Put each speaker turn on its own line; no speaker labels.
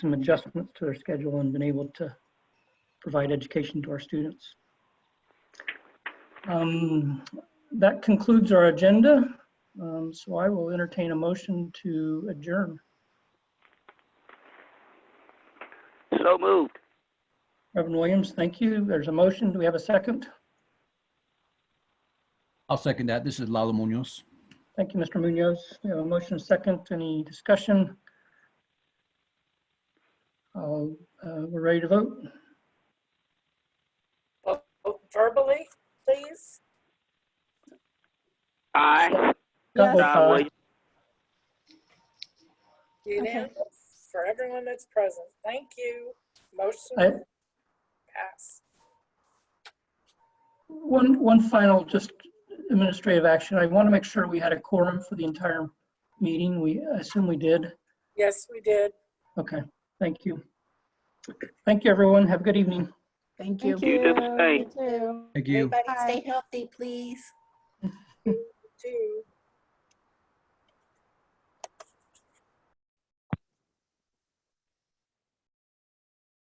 some adjustments to their schedule and been able to provide education to our students. Um, That concludes our agenda, Um, so I will entertain a motion to adjourn.
So moved.
Reverend Williams, thank you. There's a motion. Do we have a second?
I'll second that. This is Lalo Munoz.
Thank you, Mr. Munoz. We have a motion, and a second. Any discussion? I'll, uh, We're ready to vote.
vote Oh, verbally, please?
Aye.
Scott votes
Yes.
Don
aye.
Williams.
Unanimous for everyone that's present. Thank you.
I-
Motion pass.
One, one final just administrative action. I want to make sure we had a quorum for the entire meeting. We, I assume we did.
Yes, we did.
Okay, thank you. Thank you, everyone. Have a good evening.
Thank you.
You do the same.
Thank you.
Everybody stay healthy, please.